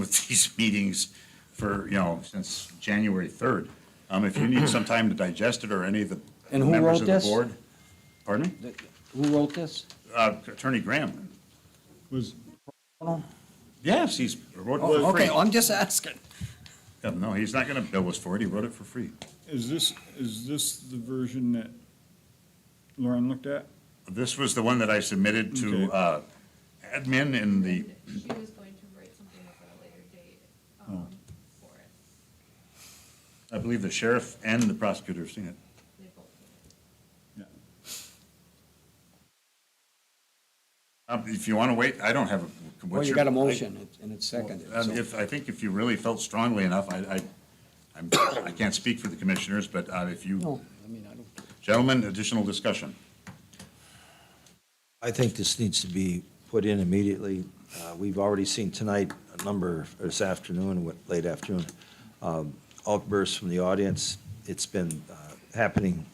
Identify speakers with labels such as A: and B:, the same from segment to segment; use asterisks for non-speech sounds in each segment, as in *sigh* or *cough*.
A: with these *laughs* meetings for, you know, since January 3rd. Um, If you need some time to digest it or any of the
B: And who
A: members
B: wrote
A: of the
B: this?
A: board. Pardon me?
B: Who wrote this?
A: Uh, Attorney Graham.
C: Was,
A: Yes, he's wrote it for
B: Oh, Okay,
A: free.
B: I'm just asking.
A: Yeah, No, he's not going to bill us for it. He wrote it for free.
C: is this, is this the version that Lauren looked at?
A: This was the one that I submitted to
C: Okay.
A: uh, admin in the,
D: She was going to write something up at a later date, um, for it.
A: I believe the sheriff and the prosecutor have seen it.
D: They both did.
C: Yeah.
A: Um, If you want to wait, I don't have a. what's
B: Well, you
A: your-
B: got a
A: I-
B: motion, it's- and it's seconded.
A: Um,
B: so-
A: If, I think if you really felt strongly enough, I, I, I'm, I can't speak for the commissioners, but uh, if you,
B: No, I mean, I don't,
A: gentlemen, additional discussion.
E: I think this needs to be put in immediately. Uh, We've already seen tonight a number, or this afternoon, what- late afternoon, um, outbursts from the audience. It's been uh, happening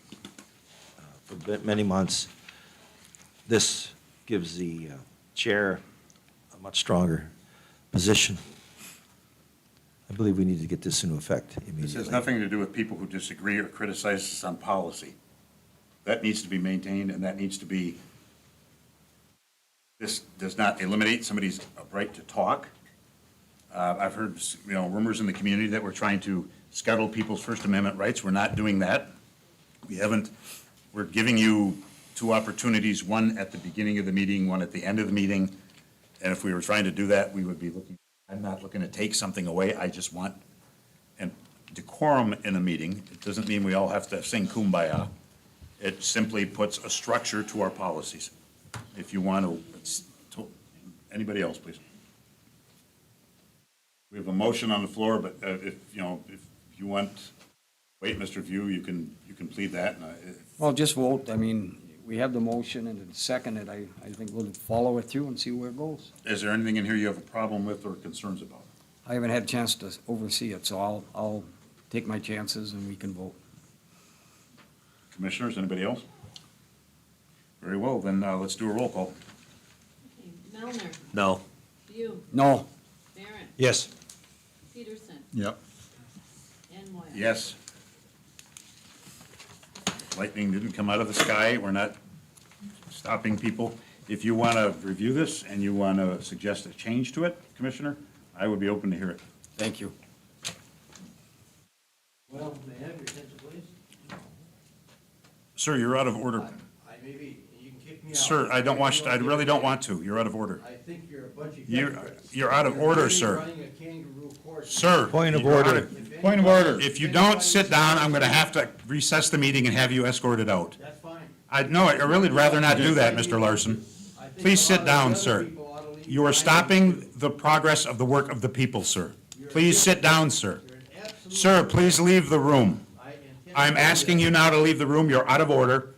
E: uh, for bit- many months. This gives the uh, chair a much stronger position. I believe we need to get this into effect immediately.
A: This has nothing to do with people who disagree or criticize us on policy. That needs to be maintained, and that needs to be, this does not eliminate somebody's uh, right to talk. Uh, I've heard, you know, rumors in the community that we're trying to scuttle people's First Amendment rights. We're not doing that. We haven't, we're giving you two opportunities, one at the beginning of the meeting, one at the end of the meeting. And if we were trying to do that, we would be looking, I'm not looking to take something away. I just want and decorum in a meeting, it doesn't mean we all have to sing kumbaya. It simply puts a structure to our policies. If you want to, it's to, anybody else, please. We have a motion on the floor, but uh, if, you know, if you want, wait, Mr. View, you can, you can plead that. and I- uh, if-
B: well, just vote, I mean, we have the motion and it's seconded, I, I think we'll follow it through and see where it goes.
A: Is there anything in here you have a problem with or concerns about?
B: I haven't had a chance to oversee it, so I'll, I'll take my chances and we can vote.
A: Commissioners, anybody else? Very well, then uh, let's do a roll call.
D: Okay, Melner,
E: No.
D: View,
B: No,
D: Barron,
E: Yes.
D: Peterson,
C: Yep.
D: and Moyle.
A: Yes. Lightning didn't come out of the sky. We're not stopping people. If you want to review this and you want to suggest a change to it, Commissioner, I would be open to hear it.
B: thank you.
F: Well, may I have your attention, please?
A: Sir, you're out of order.
F: I may be, you can kick me out.
A: Sir, I don't want, you- I really don't want to. You're out of order.
F: I think you're a bunch of
A: You're-
F: hypocrites.
A: you're out of order,
F: really
A: sir.
F: running a kangaroo court.
A: Sir.
E: Point of
A: you're out
E: order.
F: If
C: Point of
F: anybody-
C: order.
A: If you don't sit down, I'm going to have to recess the meeting and have you escorted out.
F: That's fine.
A: I, no, I really'd rather not do that, Mr. Larson.
F: I think
A: Please
F: a lot
A: sit
F: of
A: down,
F: other
A: sir.
F: people ought to leave
A: You are
F: behind.
A: stopping the progress of the work of the people, sir. Please sit down, sir.
F: You're an absolute-
A: Sir, please leave the room.
F: I intend to
A: I'm
F: do
A: asking
F: this.
A: you now to leave the room. You're out of order.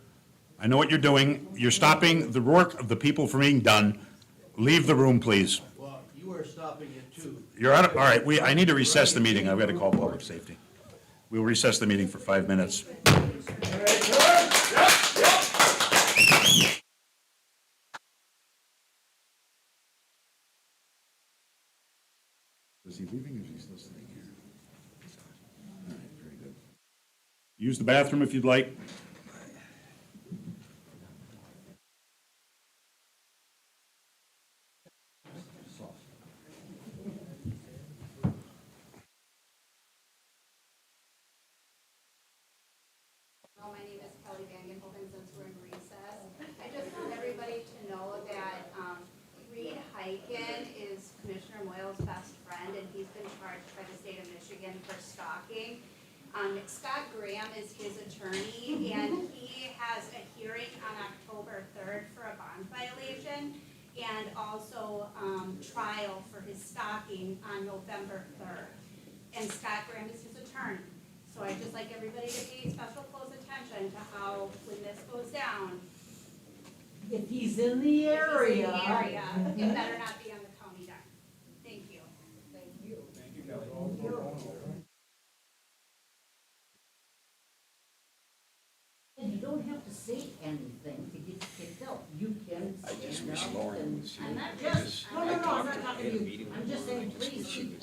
A: I know what you're doing. You're stopping the work of the people from being done. Leave the room, please.
F: Well, you are stopping it too.
A: You're out of, all right, we, I need to recess the meeting. I've got to call public safety. We'll recess the meeting for five minutes. Is he leaving or is he still staying here? All right, very good. Use the bathroom if you'd like.
G: Hello, my name is Kelly Vangenhoven, since we're in recess. I just want everybody to know that um, Reed Hyken is Commissioner Moyle's best friend, and he's been charged by the state of Michigan for stalking. Um, Scott Graham is his attorney, and he has a hearing on October 3rd for a bond violation, and also um, trial for his stalking on November 3rd and Scott Graham is his attorney. So I'd just like everybody to pay special close attention to how, when this goes down,
H: If he's in the
G: if he's in
H: area.
G: the area, it better not be on the county dime. Thank you.
H: And you don't have to say anything to get kicked out. You can stand up and. I'm not just, no, no, no, I'm not talking to you. I'm just saying, please keep